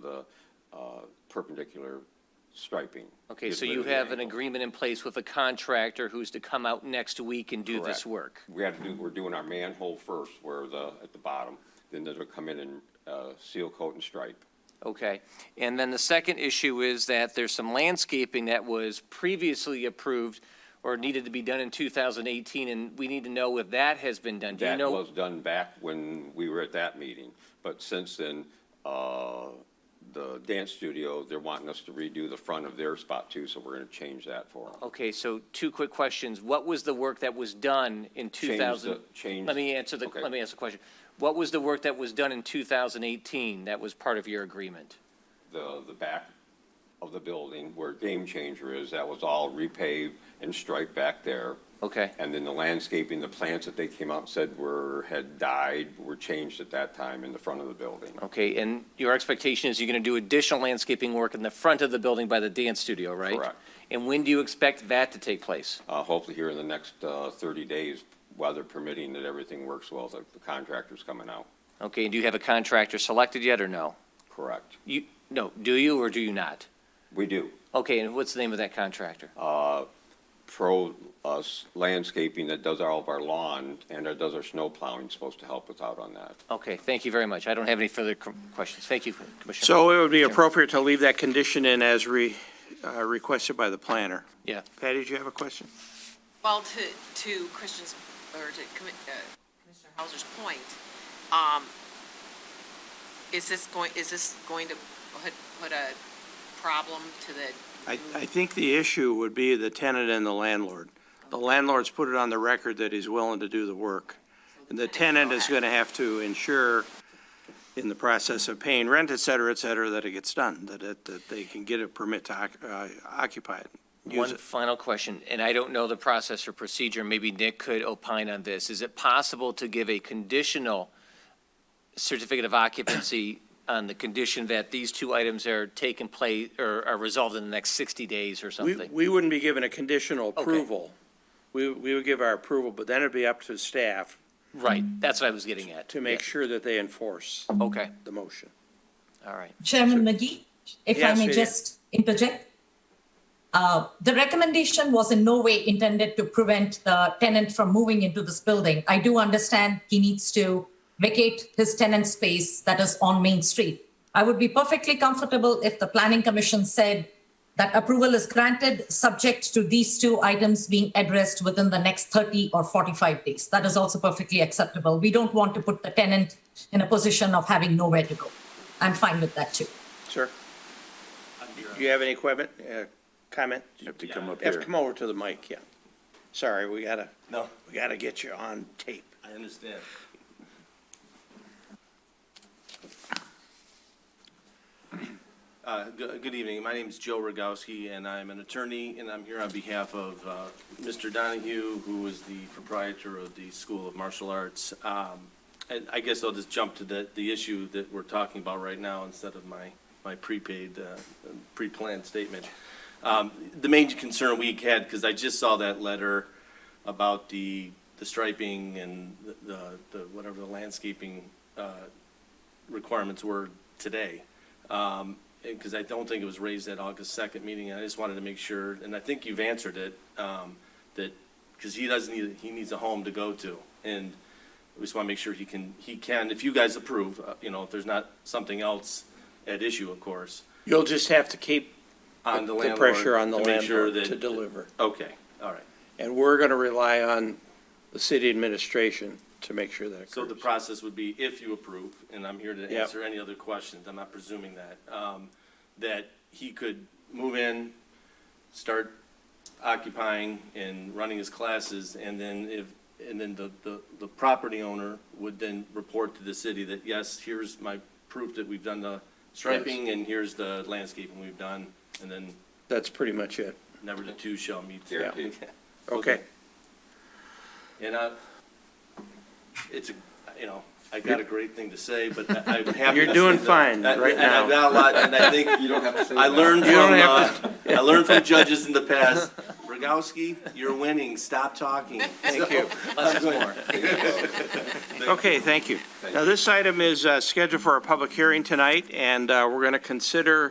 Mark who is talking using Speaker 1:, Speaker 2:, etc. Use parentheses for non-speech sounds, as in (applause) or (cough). Speaker 1: the uh, perpendicular striping.
Speaker 2: Okay,
Speaker 1: Get
Speaker 2: so
Speaker 1: rid
Speaker 2: you
Speaker 1: of the
Speaker 2: have an
Speaker 1: angle.
Speaker 2: agreement in place with a contractor who's to come out next week and do
Speaker 1: Correct.
Speaker 2: this work?
Speaker 1: We had to do, we're doing our manhole first, where the, at the bottom, then they'll come in and uh, seal coat and stripe.
Speaker 2: Okay. And then the second issue is that there's some landscaping that was previously approved or needed to be done in 2018, and we need to know if that has been done. Do you
Speaker 1: That
Speaker 2: know?
Speaker 1: was done back when we were at that meeting, but since then, uh, the dance studio, they're wanting us to redo the front of their spot too, so we're gonna change that for them.
Speaker 2: Okay, so two quick questions. What was the work that was done in 2000?
Speaker 1: change-
Speaker 2: Let me answer the,
Speaker 1: okay.
Speaker 2: let me ask the question. What was the work that was done in 2018 that was part of your agreement?
Speaker 1: The, the back of the building where Game Changer is, that was all repaved and striped back there.
Speaker 2: Okay,
Speaker 1: And then the landscaping, the plants that they came out and said were, had died, were changed at that time in the front of the building.
Speaker 2: okay, and your expectation is you're going to do additional landscaping work in the front of the building by the dance studio, right?
Speaker 1: Correct.
Speaker 2: And when do you expect that to take place?
Speaker 1: Uh, hopefully here in the next, uh, thirty days, weather permitting, that everything works well, that the contractor's coming out.
Speaker 2: Okay, and do you have a contractor selected yet, or no?
Speaker 1: Correct.
Speaker 2: You, no, do you or do you not?
Speaker 1: We do.
Speaker 2: Okay, and what's the name of that contractor?
Speaker 1: Uh, Pro uh, Landscaping that does all of our lawn and that does our snow plowing is supposed to help us out on that.
Speaker 2: Okay, thank you very much. I don't have any further com- questions. Thank you, Commissioner.
Speaker 3: So uh, it would be appropriate to leave that condition in as re, uh, requested by the planner.
Speaker 2: Yeah.
Speaker 3: Patty, do you have a question?
Speaker 4: Well, to, to Christian's, or to Commi- uh, Commissioner Hauser's point, um, is this going, is this going to put, put a problem to the?
Speaker 3: I, I think the issue would be the tenant and the landlord. The landlord's put it on the record that he's willing to do the work. And the tenant is going to have to ensure in the process of paying rent, et cetera, et cetera, that it gets done, that, it- that they can get a permit to oc- uh, occupy it. Use
Speaker 2: One
Speaker 3: it.
Speaker 2: final question, and I don't know the process or procedure, maybe Nick could opine on this. Is it possible to give a conditional certificate of
Speaker 3: (coughs)
Speaker 2: occupancy on the condition that these two items are taken place, or are resolved in the next 60 days or
Speaker 3: We,
Speaker 2: something?
Speaker 3: we wouldn't be given a conditional approval. We, we would give our approval, but then it'd be up to staff
Speaker 2: Right, that's what I was getting at.
Speaker 3: to make
Speaker 2: Yeah.
Speaker 3: sure that they enforce
Speaker 2: Okay,
Speaker 3: the motion.
Speaker 2: all right.
Speaker 5: Chairman McGee, if I
Speaker 3: Yes,
Speaker 5: may
Speaker 3: Vivian.
Speaker 5: just interject. Uh, The recommendation was in no way intended to prevent the tenant from moving into this building. I do understand he needs to vacate his tenant space that is on Main Street. I would be perfectly comfortable if the Planning Commission said that approval is granted, subject to these two items being addressed within the next 30 or 45 days. That is also perfectly acceptable. We don't want to put the tenant in a position of having nowhere to go. I'm fine with that too.
Speaker 3: Sir? Do you have any equipment, uh, comment? Have to come up here. Have to come over to the mic, yeah. Sorry, we gotta,
Speaker 6: No,
Speaker 3: we gotta get you on tape.
Speaker 6: I understand. Uh, Good good evening. My name is Joe Rogowski, and I'm an attorney, and I'm here on behalf of uh, Mr. Donahue, who is the proprietor of the School of Martial Arts. Um, And I guess I'll just jump to the, the issue that we're talking about right now instead of my, my prepaid, uh, pre-planned statement. Um, The main concern we had, because I just saw that letter about the, the striping and the- the, the, whatever the landscaping uh, requirements were today. Um, because I don't think it was raised at August second meeting, and I just wanted to make sure, and I think you've answered it, um, that, because he doesn't need, he needs a home to go to. And we just want to make sure he can, he can, if you guys approve, uh, you know, if there's not something else at issue, of course,
Speaker 3: You'll just have to keep
Speaker 6: on the
Speaker 3: the
Speaker 6: landlord.
Speaker 3: pressure on the
Speaker 6: to make sure
Speaker 3: landlord to
Speaker 6: that-
Speaker 3: deliver.
Speaker 6: Okay, all right.
Speaker 3: And we're gonna rely on the city administration to make sure that
Speaker 6: So the
Speaker 3: occurs.
Speaker 6: process would be if you approve, and I'm here to
Speaker 3: Yep.
Speaker 6: answer any other questions, I'm not presuming that, um, that he could move in, start occupying and running his classes, and then if, and then the, the, the property owner would then report to the city that, yes, here's my proof that we've done the striping, and here's the landscaping we've done, and then
Speaker 3: That's pretty much it.
Speaker 6: never the two shall meet.
Speaker 1: Guaranteed.
Speaker 3: Okay.
Speaker 6: And I, it's, a you know, I got a great thing to say, but I- I'm happy.
Speaker 3: You're
Speaker 6: to
Speaker 3: doing
Speaker 6: say that-
Speaker 3: fine
Speaker 6: I-
Speaker 3: right
Speaker 6: And
Speaker 1: (laughs)
Speaker 6: I've got a lot, and I think,
Speaker 1: You don't have to say
Speaker 6: (laughs) I learned
Speaker 3: You
Speaker 6: from,
Speaker 3: don't
Speaker 6: uh, I learned from judges in the past, re- Rogowski, you're winning. Stop talking.
Speaker 2: Thank you. Less is more.
Speaker 3: Okay, thank you. Now, this item is uh, scheduled for a public hearing tonight, and uh, we're going to consider